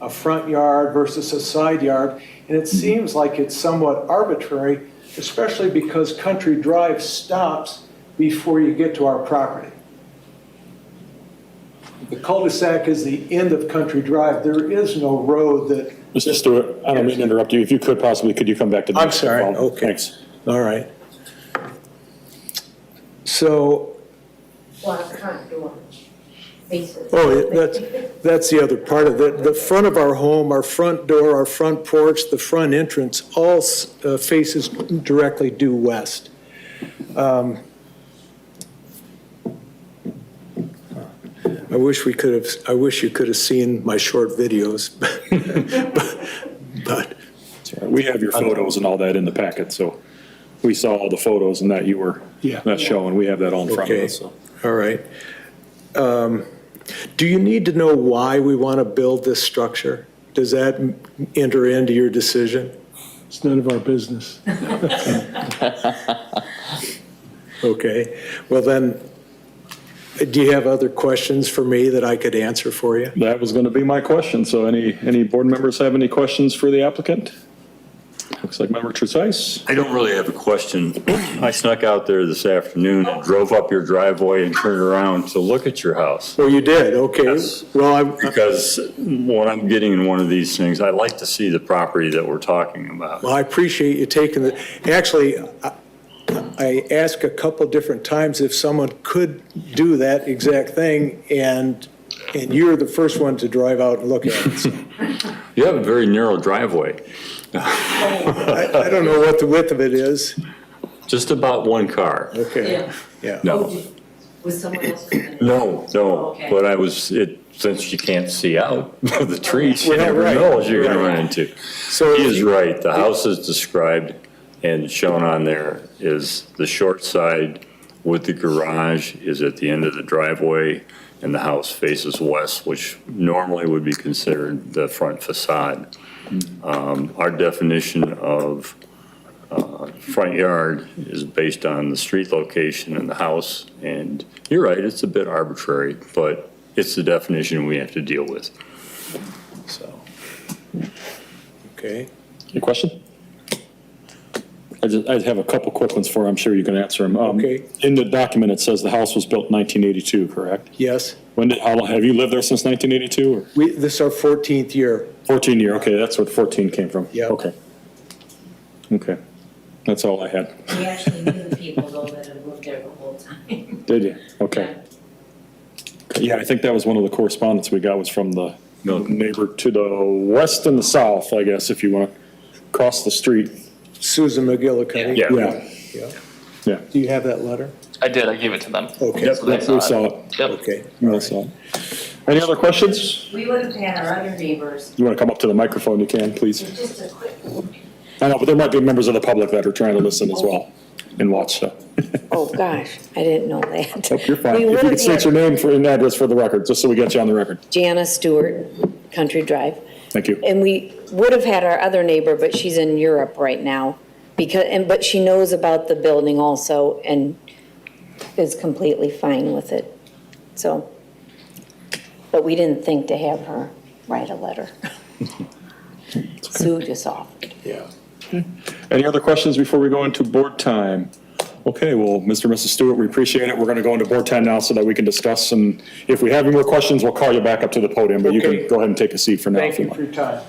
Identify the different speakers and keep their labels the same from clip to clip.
Speaker 1: a front yard versus a side yard, and it seems like it's somewhat arbitrary, especially because Country Drive stops before you get to our property. The cul-de-sac is the end of Country Drive. There is no road that,
Speaker 2: Mr. Stewart, I don't mean to interrupt you. If you could possibly, could you come back to the
Speaker 1: I'm sorry.
Speaker 2: microphone?
Speaker 1: Okay.
Speaker 2: Thanks.
Speaker 1: all right. So
Speaker 3: Well, front door faces.
Speaker 1: Oh, that's, that's the other part of it. The front of our home, our front door, our front porch, the front entrance, all s- uh, faces directly due west. Um, I wish we could have, I wish you could have seen my short videos, but,
Speaker 2: We have your photos and all that in the packet, so we saw all the photos and that you were
Speaker 1: Yeah.
Speaker 2: not showing. We have that all in front of
Speaker 1: okay,
Speaker 2: us, so.
Speaker 1: all right. Um, Do you need to know why we want to build this structure? Does that m- enter into your decision?
Speaker 4: It's none of our business.
Speaker 1: Okay, well then, do you have other questions for me that I could answer for you?
Speaker 2: That was going to be my question. So any, any board members have any questions for the applicant? Looks like Member Trusais.
Speaker 5: I don't really have a question. I snuck out there this afternoon and drove up your driveway and turned around to look at your house.
Speaker 1: Well, you did, okay.
Speaker 5: Yes.
Speaker 1: Well, I'm,
Speaker 5: Because when I'm getting in one of these things, I like to see the property that we're talking about.
Speaker 1: well, I appreciate you taking the, actually, I- I asked a couple different times if someone could do that exact thing, and, and you're the first one to drive out and look at it. So
Speaker 5: You have a very narrow driveway,
Speaker 1: I I don't know what the width of it is.
Speaker 5: just about one car.
Speaker 1: Okay,
Speaker 3: Yeah.
Speaker 1: yeah.
Speaker 3: Oh,
Speaker 5: No,
Speaker 3: did- Was someone else?
Speaker 5: no, no,
Speaker 3: Okay.
Speaker 5: but I was, it, since you can't see out of the trees, you
Speaker 1: Well,
Speaker 5: never
Speaker 1: right,
Speaker 5: know what you're gonna
Speaker 1: right.
Speaker 5: run into.
Speaker 1: So,
Speaker 5: He is right. The house is described and shown on there is the short side with the garage is at the end of the driveway and the house faces west, which normally would be considered the front facade. Um, Our definition of uh, front yard is based on the street location and the house. And you're right, it's a bit arbitrary, but it's the definition we have to deal with. So.
Speaker 1: okay.
Speaker 2: Any question? I just, I have a couple quick ones for, you. I'm sure you can answer them. Um,
Speaker 1: Okay.
Speaker 2: In the document, it says the house was built in 1982, correct?
Speaker 1: Yes,
Speaker 2: When did, how long, have you lived there since 1982 or?
Speaker 1: we, this is our 14th year.
Speaker 2: 14 year, okay, that's what 14 came from?
Speaker 1: Yeah.
Speaker 2: Okay. Okay, that's all I had.
Speaker 3: We actually knew the people though that had lived there the whole time.
Speaker 2: Did you? Okay. Yeah, I think that was one of the correspondence we got was from the
Speaker 5: Milton.
Speaker 2: neighbor to the west and the south, I guess, if you want to cross the street.
Speaker 1: Susan McGillicuddy.
Speaker 5: Yeah.
Speaker 2: Yeah,
Speaker 1: Yeah.
Speaker 2: yeah.
Speaker 1: Do you have that letter?
Speaker 6: I did, I gave it to them.
Speaker 1: Okay,
Speaker 6: So they
Speaker 2: Yep,
Speaker 6: saw
Speaker 2: We
Speaker 6: it.
Speaker 2: saw it.
Speaker 6: Yep.
Speaker 1: okay.
Speaker 2: We saw it. Any other questions?
Speaker 3: We would have had our other neighbors,
Speaker 2: You want to come up to the microphone, you can, please.
Speaker 3: just a quick,
Speaker 2: I know, but there might be members of the public that are trying to listen as well and watch, so.
Speaker 7: Oh, gosh, I didn't know that.
Speaker 2: Nope, You're fine.
Speaker 7: We
Speaker 2: If
Speaker 7: would
Speaker 2: you could
Speaker 7: have
Speaker 2: state your
Speaker 7: had
Speaker 2: name for, and address for the record, just so we get you on the record.
Speaker 7: Jana Stewart, Country Drive,
Speaker 2: Thank you.
Speaker 7: and we would have had our other neighbor, but she's in Europe right now. Because, and, but she knows about the building also and is completely fine with it, so. But we didn't think to have her write a letter. Sue just offered.
Speaker 1: Yeah.
Speaker 2: Any other questions before we go into board time? Okay, well, Mr. and Mrs. Stewart, we appreciate it. We're going to go into board time now so that we can discuss, and if we have any more questions, we'll call you back up to the podium, but you
Speaker 1: Okay.
Speaker 2: can go ahead and take a seat for now. if
Speaker 1: Thank
Speaker 2: you
Speaker 1: you
Speaker 2: want.
Speaker 1: for your time.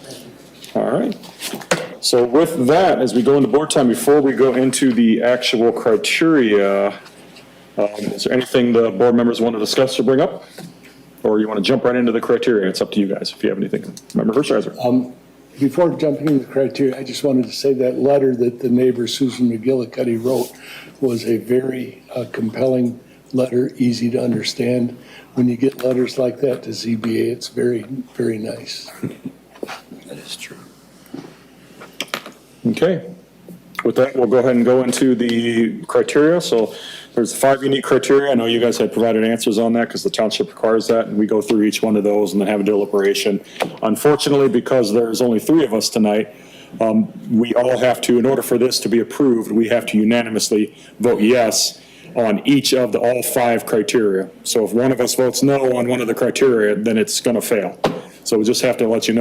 Speaker 2: All right. So with that, as we go into board time, before we go into the actual criteria, um, is there anything the board members want to discuss or bring up? Or you want to jump right into the criteria? It's up to you guys if you have anything. Member Hershiser?
Speaker 4: Before jumping into the criteria, I just wanted to say that letter that the neighbor Susan McGillicuddy wrote was a very uh, compelling letter, easy to understand. When you get letters like that to ZBA, it's very, very nice.
Speaker 5: That is true.
Speaker 2: Okay. With that, we'll go ahead and go into the criteria. So there's five unique criteria. I know you guys had provided answers on that because the township requires that. And we go through each one of those and then have a deliberation. Unfortunately, because there's only three of us tonight, um, we all have to, in order for this to be approved, we have to unanimously vote yes on each of the, all five criteria. So if one of us votes no on one of the criteria, then it's going to fail. So we just have to let you know.